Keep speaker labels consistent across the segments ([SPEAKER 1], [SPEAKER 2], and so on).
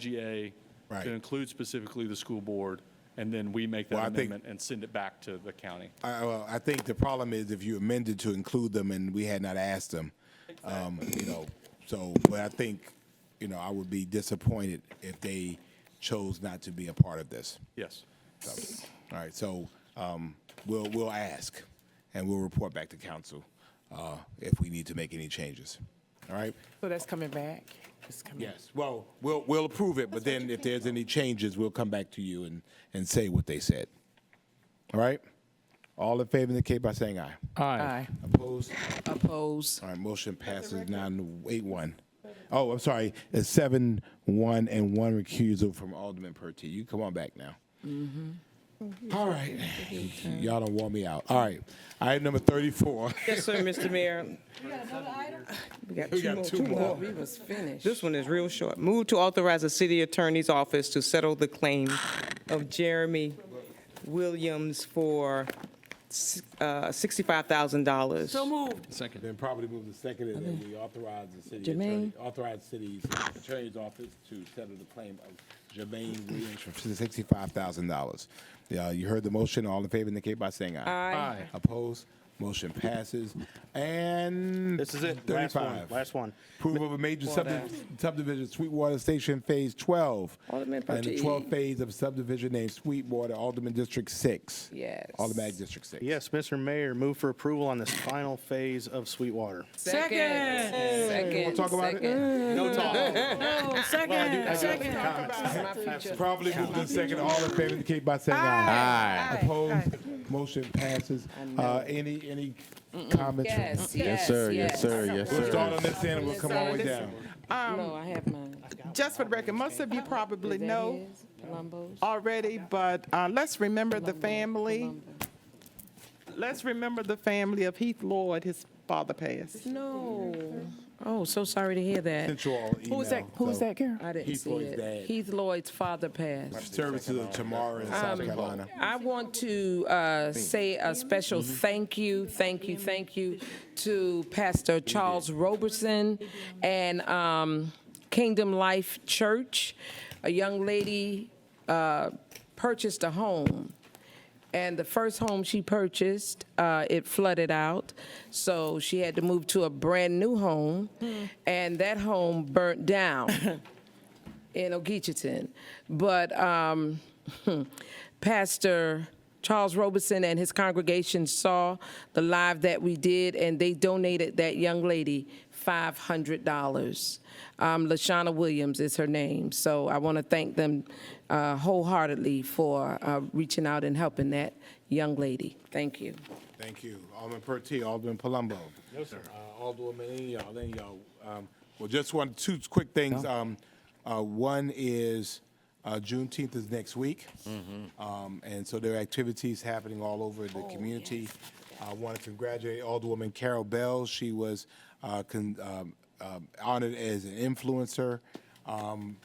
[SPEAKER 1] IGA
[SPEAKER 2] Right.
[SPEAKER 1] to include specifically the school board, and then we make that
[SPEAKER 2] Well, I think-
[SPEAKER 1] amendment and send it back to the county.
[SPEAKER 2] I, well, I think the problem is if you amended to include them and we had not asked them, um, you know, so, but I think, you know, I would be disappointed if they chose not to be a part of this.
[SPEAKER 1] Yes.
[SPEAKER 2] So, all right, so, um, we'll, we'll ask and we'll report back to council, uh, if we need to make any changes. All right?
[SPEAKER 3] So that's coming back? It's coming.
[SPEAKER 2] Yes, well, we'll, we'll approve it, but then if there's any changes, we'll come back to you and, and say what they said. All right? All in favor indicate by saying aye.
[SPEAKER 3] Aye.
[SPEAKER 2] Opposed?
[SPEAKER 3] Oppose.
[SPEAKER 2] All right, motion passes nine, eight, one. Oh, I'm sorry, it's seven, one, and one recusal from Alderman Purty. You come on back now. All right, y'all don't want me out. All right, item number thirty-four.
[SPEAKER 4] Yes, sir, Mr. Mayor. We got
[SPEAKER 2] We
[SPEAKER 4] two more,
[SPEAKER 2] got two
[SPEAKER 4] two
[SPEAKER 2] more.
[SPEAKER 4] more.
[SPEAKER 3] We was finished.
[SPEAKER 4] This one is real short. Move to authorize the city attorney's office to settle the claim of Jeremy Williams for s- uh, $65,000.
[SPEAKER 3] So moved.
[SPEAKER 2] Then probably move the second, and then we authorize the city attorney,
[SPEAKER 3] Jermaine?
[SPEAKER 2] authorize city's attorney's office to settle the claim of Jermaine Williams for sixty-five thousand dollars. Yeah, you heard the motion. All in favor indicate by saying aye.
[SPEAKER 4] Aye.
[SPEAKER 2] Opposed? Motion passes. And
[SPEAKER 5] This is it. Last one.
[SPEAKER 2] Thirty-five.
[SPEAKER 5] Last one.
[SPEAKER 2] Approval of a major subdivision, subdivision, Sweetwater Station Phase Twelve.
[SPEAKER 3] Alderman
[SPEAKER 2] And the
[SPEAKER 3] Pate.
[SPEAKER 2] twelfth phase of subdivision named Sweetwater, Alderman District Six.
[SPEAKER 3] Yes.
[SPEAKER 2] Alderman District Six.
[SPEAKER 5] Yes, Mr. Mayor, move for approval on this final phase of Sweetwater.
[SPEAKER 3] Second. Second.
[SPEAKER 2] Wanna talk about it? Eh,
[SPEAKER 5] No talk.
[SPEAKER 2] Probably moved in second. All in favor indicate by saying aye. Aye. Opposed? Motion passes. Uh, any, any comments? from-
[SPEAKER 3] Yes, yes, sir, yes, sir, yes,
[SPEAKER 2] We'll start on this end and we'll come all the way down.
[SPEAKER 3] No, Oh, I have mine.
[SPEAKER 6] Just for the record, most of you probably
[SPEAKER 3] Is that
[SPEAKER 6] know
[SPEAKER 3] his? Palumbo's?
[SPEAKER 6] already, but uh, let's remember the family. Let's remember the family of Heath Lloyd, his father passed.
[SPEAKER 3] No. Oh, so sorry to hear that.
[SPEAKER 2] Sent you all an
[SPEAKER 3] Who's that,
[SPEAKER 2] email,
[SPEAKER 3] who's
[SPEAKER 2] so-
[SPEAKER 3] that girl? I didn't
[SPEAKER 2] Heath
[SPEAKER 3] see
[SPEAKER 2] Lloyd's
[SPEAKER 3] it.
[SPEAKER 2] dad.
[SPEAKER 3] Heath Lloyd's father passed.
[SPEAKER 2] Services of tomorrow in South Carolina.
[SPEAKER 3] I want to uh, say a special thank you, thank you, thank you to Pastor Charles Roberson and um, Kingdom Life Church. A young lady uh, purchased a home, and the first home she purchased, uh, it flooded out, so she had to move to a brand-new home, and that home burnt down in Ogeechiton. But um, Pastor Charles Robeson and his congregation saw the live that we did, and they donated that young lady $500. Um, Lashana Williams is her name. So I want to thank them uh, wholeheartedly for uh, reaching out and helping that young lady. Thank you.
[SPEAKER 2] Thank you. Alderman Pertee, Alderman Palumbo. No, sir. Alderman, any of y'all, any of y'all. Um, Well, just one, two quick things. Um, uh, One is uh, Juneteenth is next week. Um, And so there are activities happening all over the community. I want to congratulate Alderwoman Carol Bell. She was uh, con- um, um, honored as an influencer um,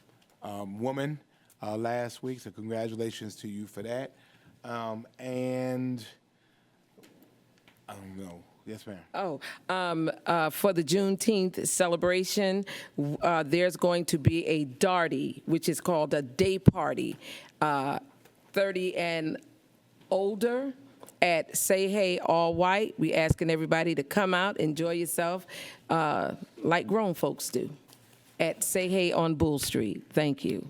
[SPEAKER 2] um, woman uh, last week, so congratulations to you for that. Um, And I don't know. Yes, ma'am.
[SPEAKER 3] Oh, um, uh, for the Juneteenth celebration, w- uh, there's going to be a darty, which is called a day party, uh, 30 and older at Say Hey All White. We asking everybody to come out, enjoy yourself, uh, like grown folks do, at Say Hey on Bull Street. Thank you.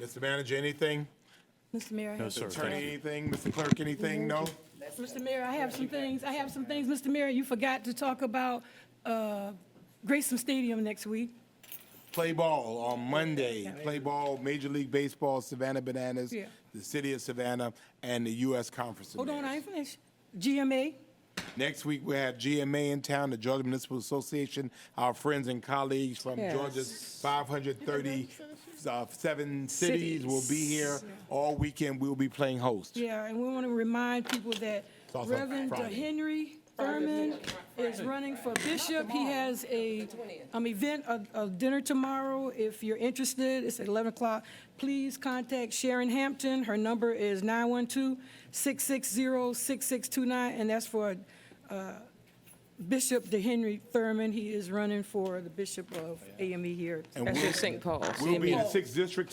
[SPEAKER 2] Mr. Manager, anything?
[SPEAKER 7] Mr. Mayor, I have-
[SPEAKER 1] sir.
[SPEAKER 2] Attorney, anything? Mr. Clerk, anything? No?
[SPEAKER 7] Mr. Mayor, I have some things, I have some things, Mr. Mayor, you forgot to talk about uh, Grayson Stadium next week.
[SPEAKER 2] Play ball on Monday. Play ball, Major League Baseball, Savannah Bananas,
[SPEAKER 7] Yeah.
[SPEAKER 2] the City of Savannah, and the U.S. Conference. of
[SPEAKER 7] Hold on, I
[SPEAKER 2] Mayors.
[SPEAKER 7] ain't finished. GMA,
[SPEAKER 2] Next week, we have GMA in town, the Georgia Municipal Association, our friends and colleagues from Georgia's 537 uh, cities will be here all weekend. We'll be playing host.
[SPEAKER 7] yeah, and we want to remind people that
[SPEAKER 2] also
[SPEAKER 7] Reverend
[SPEAKER 2] Friday.
[SPEAKER 7] Henry Thurman is running for bishop. He has a, um, event, a, a dinner tomorrow. If you're interested, it's at 11 o'clock. Please contact Sharon Hampton. Her number is 912-660-6629, and that's for uh, Bishop DeHenry Thurman. He is running for the bishop of AME here at
[SPEAKER 2] And
[SPEAKER 3] That's
[SPEAKER 2] we'll-
[SPEAKER 3] in St. Paul's.
[SPEAKER 2] We'll be in the
[SPEAKER 3] CMU.
[SPEAKER 2] sixth district